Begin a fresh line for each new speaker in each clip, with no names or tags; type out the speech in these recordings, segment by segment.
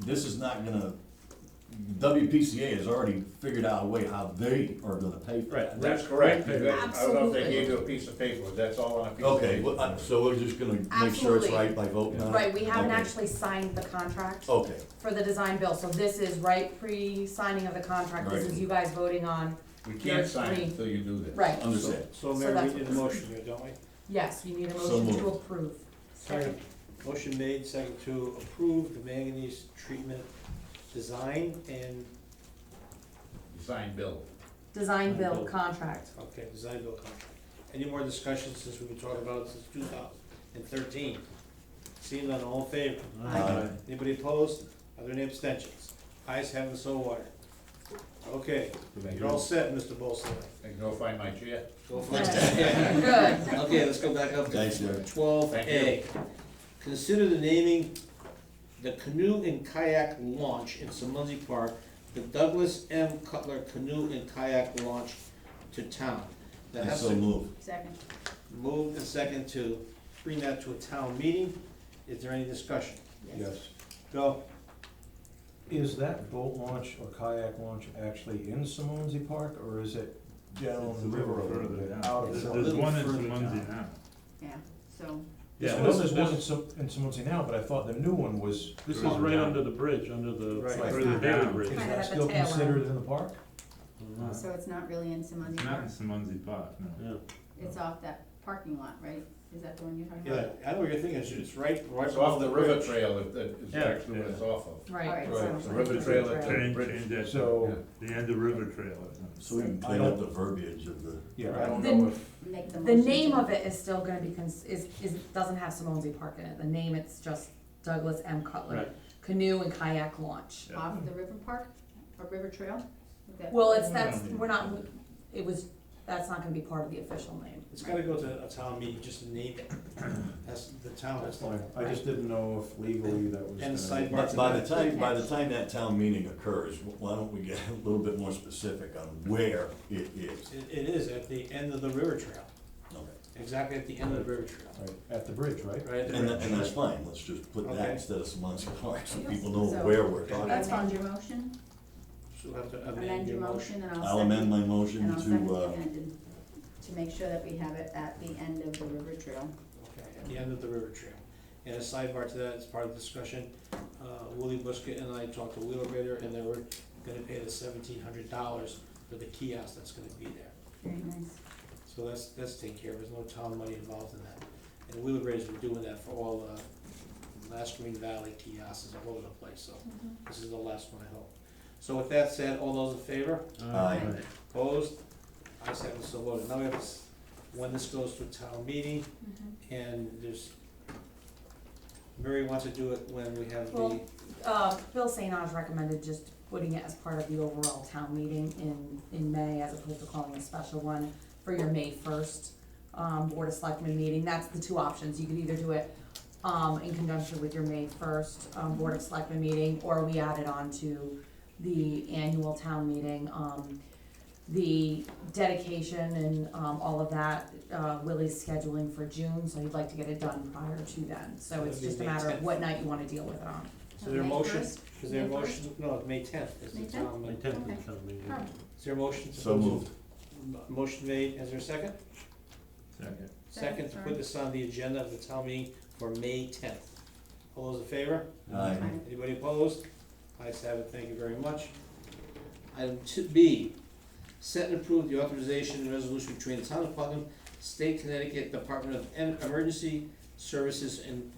this is not gonna, WPCA has already figured out a way how they are gonna pay for
Right,
that.
that's
That's
correct.
correct, You got- I don't know if they gave you a piece of paper, that's all on a piece of paper.
Okay, well, uh, I- so we're just gonna make sure it's
Absolutely.
right by voting on it?
Right, we haven't
Okay. Oh.
actually signed the contract
Okay,
for the design bill, so this is right pre-signing of the contract, this
Right.
is you guys voting on,
We can't sign it
Three.
until you do that.
right,
understand.
So
So
Mayor,
that's
we need a
what this
motion here, don't we?
yes, you need
So
a motion to
moved.
approve.
Second. Motion made, second to approve the manganese treatment design and,
You sign bill.
Design bill
Bill.
contract,
okay, design bill contract. Any more discussion since we've been talking about it since two thousand and thirteen? Seeing none, all in favor?
Aye.
Aye.
Anybody opposed? Are there any abstentions? Ayes have it, so ordered. Okay, you're all set, Mr. Bolson.
I can go find my chair.
Go for
Yes.
it.
good.
Okay, let's go back up
Thanks,
to
Jerry.
twelve A.
Thank
Consider the naming the canoe and kayak launch in Simunzi Park, the Douglas M. Cutler Canoe and Kayak Launch to Town. That
And
has
so
to
move.
Second.
move and second to bring that to a town meeting. Is there any discussion?
Yes.
Go.
Is that boat launch or kayak launch actually in Simonsy Park, or is it down the river a little bit, out of
There's
a
there's
little
one in
further
Simunzi
down?
now.
Yeah, so.
There's
Yeah,
one-
this
there's
is,
one
this
in Sim- in Simunzi now, but I thought the new one was.
this is
further
right
down.
under the bridge, under the,
Right.
under the Bailey Bridge.
Is
Kind of at
that
the
still
tail end.
considered in the park?
So it's not really in Simunzi
It's not in
Park,
Simunzi Park, no.
Yeah.
it's off that parking lot, right? Is that the one you're talking
Yeah,
about?
I know what you're thinking, it's- it's right, right
It's off
above
the river trail, if that is
Yeah.
actually what it's off of.
All
Right,
right,
Right,
so-
it's a river trail at the
Change,
bridge.
change that to
So,
the end of River Trail. or something.
So we can
I
clean up
don't-
the verbiage of the,
yeah,
I
I don't,
don't
The-
know if,
Make
the
motion
name
to-
of it is still gonna be, cons- is, is, doesn't have Simonzi Park in it, the name, it's just Douglas M. Cutler
Right.
Canoe and Kayak Launch.
Yeah.
Off the river park, or river trail? Is that-
Well, it's, that's,
Yeah.
we're not, it was, that's not gonna be part of the official name.
It's gotta go to a town meeting, just to name it. That's, the town
that's
has
fine,
to.
I just didn't know if legally that was.
And
gonna-
sidebar.
by by the time, by the time that town meeting occurs, why don't we get a little bit more specific on where it is?
It, it is at the end of the river trail,
Okay.
exactly at the end of the river trail,
Right, At the bridge, right?
right at the
And, tha- and that's
river.
fine, let's just put that
Okay.
instead of Simunzi Park, so people know
So-
where we're talking.
Amend
That's fine.
your motion,
She'll have to
amend your motion and I'll second.
I'll amend my
And
motion
I'll second
to,
the
uh,
amended, to make sure that we have it at the end of the river trail.
Okay, at the end of the river trail. And a sidebar to that, as part of the discussion, uh, Willie Buskett and I talked to Wheelwrighter and they were gonna pay the seventeen hundred dollars for the kiosk that's gonna be there.
Very nice.
So that's, that's taken care of, there's no town money involved in that. And Wheeler Raiders were doing that for all, uh, last Green Valley kiosks all over the place, so
Mm-hmm.
this is the last one, I hope. So with that said, all those in favor,
Aye.
opposed, I have it so voted. Now we have this, when this goes to town meeting, and there's, Mary wants to do it when we have the,
Well- Uh, Bill St. Ange recommended just putting it as part of the overall town meeting in, in May, as opposed to calling a special one for your May first, um, Board of Selectmen meeting, that's the two options, you could either do it, um, in conjunction with your May first, um, Board of Selectmen meeting, or we add it on to the annual town meeting, um, the dedication and, um, all of that, uh, Willie's scheduling for June, so he'd like to get it done prior to then, so
That'd
it's
be
just a
May
matter of
10th.
what night you wanna deal with it on.
is there a
May
motion?
first?
Is there a
May first?
motion, no, it's May tenth, is the
May
town,
My
meeting.
tenth
Okay.
is town meeting.
Oh.
is there a motion to?
so moved.
Motion made, is there a second?
Second.
Second, to put
Second,
this on the agenda of the town meeting for May tenth. All those in favor?
Aye.
Aye.
Anybody opposed? Ayes have it, thank you very much. Item two B, set and approve the authorization and resolution between the town of Putnam, State Connecticut Department of En- Emergency Services and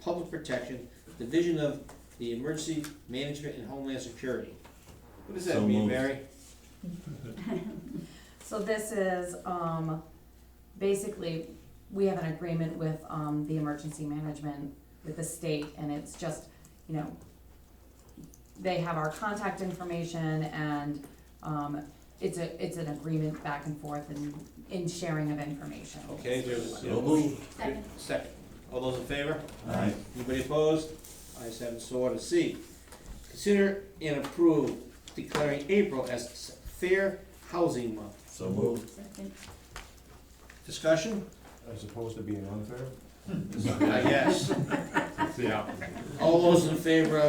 Public Protection, Division of the Emergency Management and Homeland Security. What does that
So
mean,
moved.
Mary?
So this is, um, basically, we have an agreement with, um, the emergency management with the state, and it's just, you know, they have our contact information and, um, it's a, it's an agreement back and forth and in sharing of information.
Okay, there's.
So moved.
second,
Second. All those in favor?
Aye.
Anybody opposed? Ayes have it, so ordered. C, consider and approve declaring April as S- Fair Housing Month.
So moved.
second.
Discussion?
As opposed to being unfair?
I guess.
It's the opposite.
All those in favor of